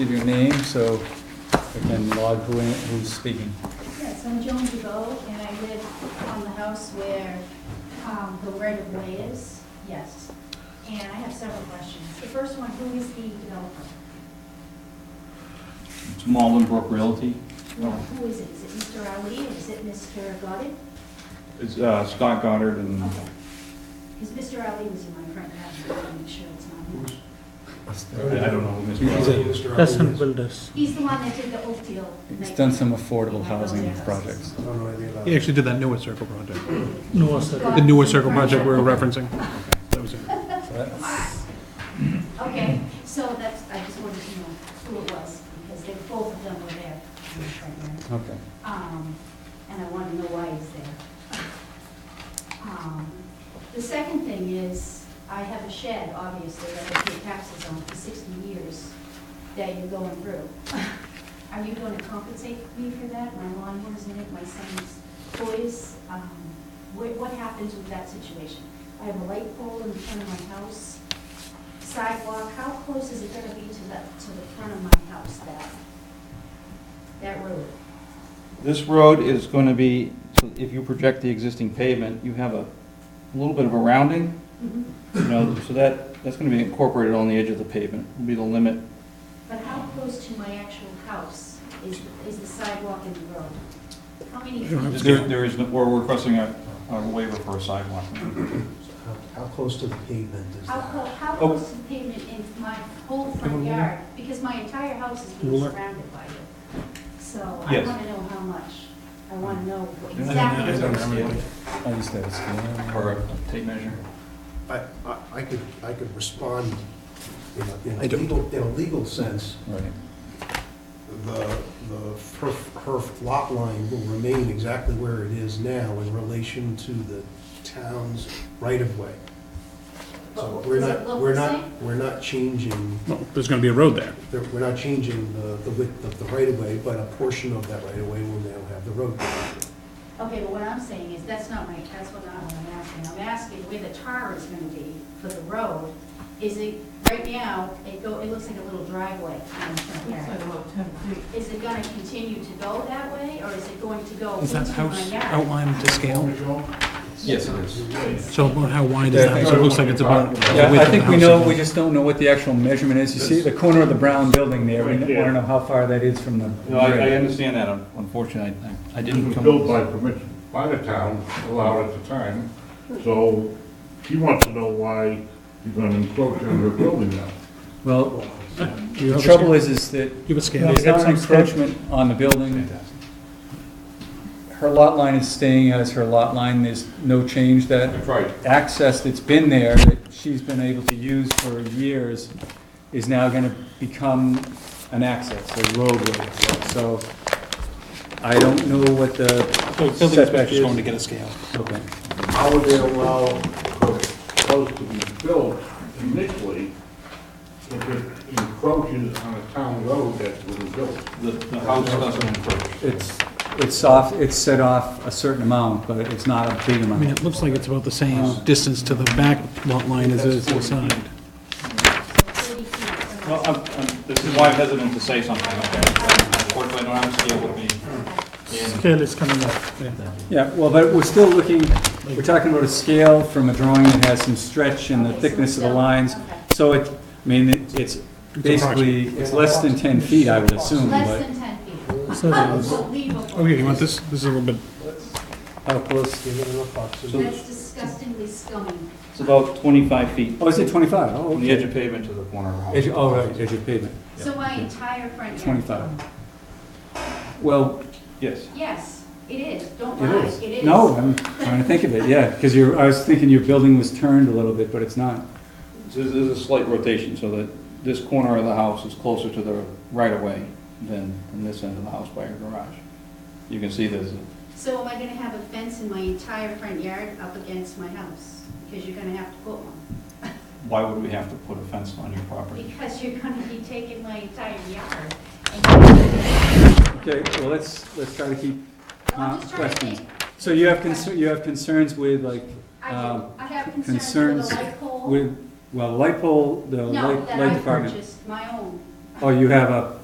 Give your name so I can log who, who's speaking. Yes, I'm Joan DeVoe, and I live on the house where um, the right-of-way is, yes. And I have several questions. The first one, who is the developer? It's Malden Brook Realty. Oh. Well, Who is it? Is it Mr. Ali, or is it Mr. Goddard? It's uh, Scott Goddard and Okay. Because Mr. Ali was in my front house, so I want to make sure it's not him. I I don't know who Mr. He's a- Goddard is. Custom builders. He's the one that did the Oak Deal. He's done some affordable housing projects. I don't know anything about He it. actually did that newer circle project, No, sir. the newer circle project we were referencing. That was it. So that's- Okay, so that's, I just wanted to know who it was, because they, both of them were there. Okay. Um, and I want to know why he's there. Um, The second thing is, I have a shed, obviously, that I pay taxes on for 60 years that you're going through. Are you going to compensate me for that? My lawn was in it, my son's toys. um, What, what happens with that situation? I have a light pole in front of my house, sidewalk, how close is it going to be to the, to the front of my house, that, that road? This road is going to be, so if you project the existing pavement, you have a little bit of a rounding, Mhm. you know, so that, that's going to be incorporated on the edge of the pavement, will be the limit. But how close to my actual house is, is the sidewalk and the road? How many feet? There there is, no- we're requesting a a waiver for a sidewalk. How- How close to the pavement is How, that? clo- how Oh. close to the pavement in my whole front yard? Because my entire house is being Ruler. surrounded by it. So I Yes. want to know how much. I want to know what Yeah, exactly. yeah, it is. I used to have a scale. Or a tape measure. I, I, I could, I could respond in a- in I a don't- legal, in a legal sense, Right. the, the, her, her lot line will remain exactly where it is now in relation to the town's right-of-way. So But we're does it not, look we're the not, same? we're not changing, Well, there's going to be a road there. there- we're not changing the, the width of the right-of-way, but a portion of that right-of-way will now have the road. Okay, but what I'm saying is, that's not my, that's what I'm I'm asking. I'm asking where the tar is gonna be for the road. Is it, right now, it go, it looks like a little driveway in the front Looks like yard. about ten feet. Is it gonna continue to go that way, or is it going to go Is into that my house yard? outlined to scale? Yes, it is. So about how wide is the house? It looks like it's about. the Yeah, width I of the think we house. know, we just don't know what the actual measurement is. You see the corner of the brown building there, we want to know how far that is from the No, I I grid. understand that, Un- unfortunately, I- I It didn't was come. built by permission, by the town, allowed at the time, so he wants to know why you're gonna encroach on their building now. Well, You the have a trouble scale? is, is that You have a scale. it's not an encroachment on the building. Her lot line is staying as her lot line, there's no change that That's right. access that's been there, that she's been able to use for years, is now gonna become an access, a roadway. So I don't know what the The building setback inspector's is. going to get a scale. Okay. How would they allow those to be built initially if it encroaches on a town road that's been built? The the house doesn't encroach. It's, it's off, it's set off a certain amount, but it's not a big I mean, amount. it looks like it's about the same distance to the back lot line as it is to the side. Thirty feet from Well, I'm- I'm- this is why I'm hesitant to say something, okay? Unfortunately, I don't have a scale with me. And Scale is coming up, yeah. Yeah, well, but we're still looking, we're talking about a scale from a drawing that has some stretch and the Okay, so thickness of the it's- lines. okay. So it, I mean, it- it's basically, it's less than ten feet, I would assume, Less but than ten feet. So- Oh, Unbelievable. here, you want this? This is a little bit, how close? Give it enough oxygen. That's disgustingly scummy. It's about 25 feet Oh, is it twenty-five? Oh, From the edge okay. of pavement to the corner of the house. Edge, oh, right, edge of pavement, So my entire front yard. twenty-five. Well, Yes. Yes, it is. Don't it lie, is. it is. No, I'm trying to think of it, yeah, because you're, I was thinking your building was turned a little bit, but it's not. There's there's a slight rotation, so that this corner of the house is closer to the right-of-way than from this end of the house by your garage. You can see there's, a- So am I gonna have a fence in my entire front yard up against my house? Because you're gonna have to put one. why would we have to put a fence on your property? Because you're gonna be taking my entire yard. and- Okay, well, let's, let's try to keep I'm just Uh, trying to questions. think. So you have concerns, you have concerns with like, I um, do- I have concerns with concerns the light pole. with, well, light pole, the No, light, that light I department. purchased, my own. Oh, you have a